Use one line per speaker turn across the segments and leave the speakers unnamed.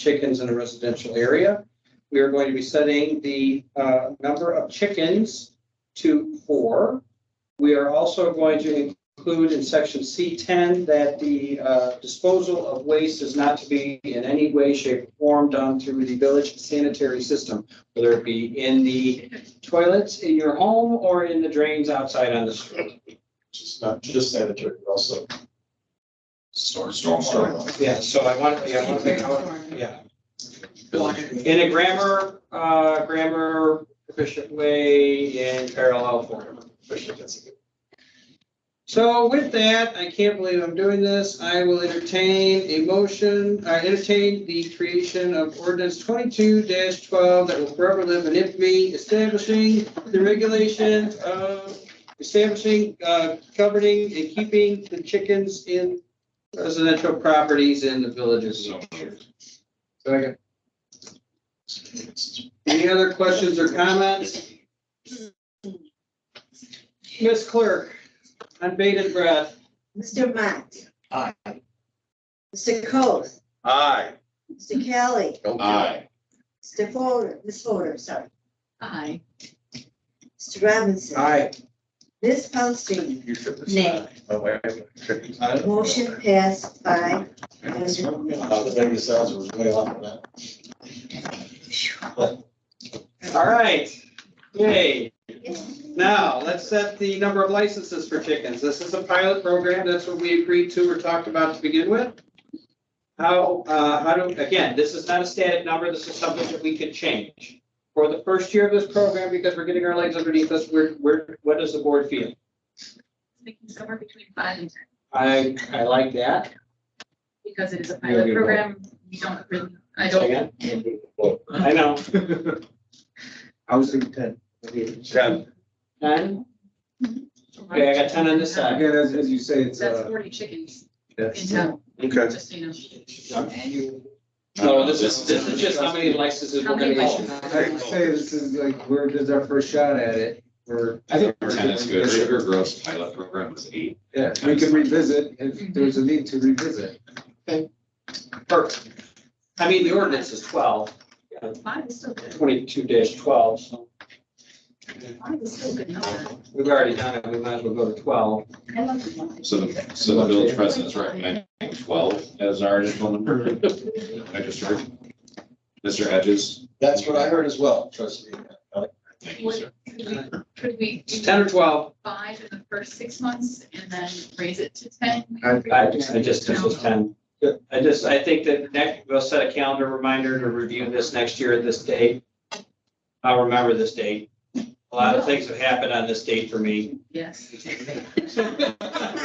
chickens in a residential area. We are going to be setting the uh, number of chickens to four. We are also going to include in section C10 that the uh, disposal of waste is not to be in any way, shape, or form done through the village sanitary system, whether it be in the toilets in your home or in the drains outside on the street.
Just not just sanitary, but also.
Storm,
stormwater.
Yeah, so I want, yeah, I want to make, yeah. In a grammar, uh, grammar efficient way in parallel form.
Especially if it's-
So with that, I can't believe I'm doing this. I will entertain a motion, I entertain the creation of ordinance twenty-two twelve that will forever live in infamy, establishing the regulation of establishing, uh, governing and keeping the chickens in residential properties in the villages. Second. Any other questions or comments? Ms. Clerk, on bated breath.
Mr. Matt. Aye. Mr. Cole,
Aye.
Mr. Kelly,
Aye.
Mr. Fodor, Ms. Fodor, sorry,
Aye.
Mr. Robinson.
Aye.
Ms. Paulson,
You should.
nay.
Oh, wait, wait.
Motion passed by.
Not that any sounds was way off of that.
All right. Yay. Now, let's set the number of licenses for chickens. This is a pilot program. That's what we agreed to or talked about to begin with. How, uh, how do, again, this is not a static number. This is something that we could change. For the first year of this program, because we're getting our legs underneath us, we're, we're, what does the board feel?
Making somewhere between five and ten,
I, I like that.
because it is a
Yeah,
pilot
you're
program, you don't really, I don't,
Again? I know.
I was thinking ten.
Ten.
None? Okay, I got ten on this side.
Again, as, as you say, it's,
that's
uh,
forty chickens in
yes.
town,
Okay.
just so you know.
No, this is, this is just how many licenses
How
we're
many
gonna
licenses?
issue.
I would say this is like, we're, this is our first shot at it, we're.
I think ten is good. Sugar Grove's pilot program was eight.
Yeah, we can revisit if there's a need to revisit.
Perfect. I mean, the ordinance is twelve,
Five is still good,
twenty-two dash twelve, so
five is still good number.
we've already done it, we might as well go to twelve.
I love the one.
So the, so the village president's recommending twelve as our initial number. I just heard. Mr. Edges.
That's what I heard as well, trust me.
Thank you, sir.
Could we- Could we
It's
do
ten or twelve.
five in the first six months and then raise it to ten?
I, I just, this was ten. I just, I think that next, we'll set a calendar reminder to review this next year at this date. I'll remember this date. A lot of things have happened on this date for me.
Yes.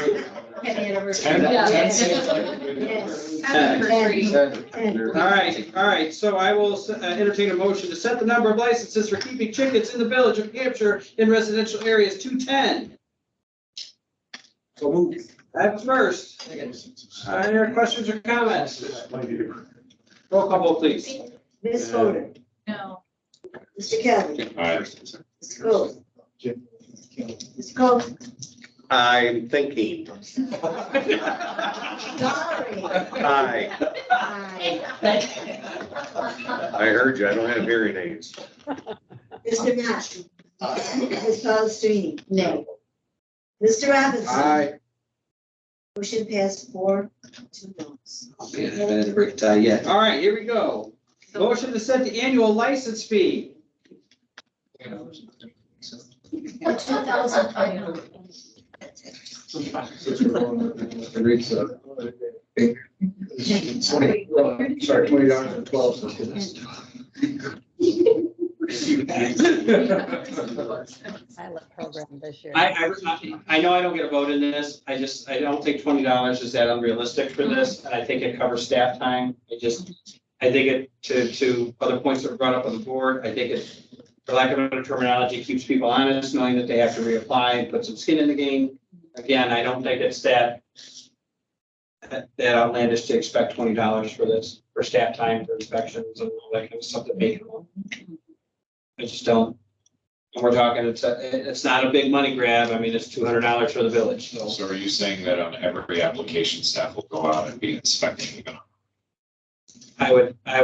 Ten.
Yeah.
Ten
seems like Happy anniversary.
Ten.
Ten.
All right, all right, so I will uh, entertain a motion to set the number of licenses for keeping chickens in the village of New Hampshire in residential areas to ten.
So move.
I have a first. Are there Any questions or comments? Roll call, vote, please.
Ms. Fodor,
No,
Mr. Kelly,
Aye.
Mr. Cole. Mr. Cole,
I'm thinking,
sorry.
hi,
Aye.
I heard you, I don't have hearing aids.
Mr. Matt. Ms. Paulson, nay. Mr. Robinson. Motion passed four to noes.
All right, here we go.
so
Motion to set the annual license fee.
Two thousand five hundred.
Since we're going to the rates of- Twenty, well, sorry, twenty dollars and twelve cents.
pilot program this year.
I, I, was not- I know I don't get a vote in this. I just, I don't think twenty dollars is that unrealistic for this, and I think it covers staff time. I just, I think it, to, to other points that were brought up on the board, I think it, for lack of better terminology, keeps people honest, knowing that they have to reapply and put some skin in the game. Again, I don't think it's that that outlandish to expect twenty dollars for this, for staff time, for inspections and all that kind of stuff that they. I just don't. And we're talking, it's, a- it's not a big money grab. I mean, it's two hundred dollars for the village, so.
So are you saying that um, on every application, staff will go out and be inspecting even on
I would, I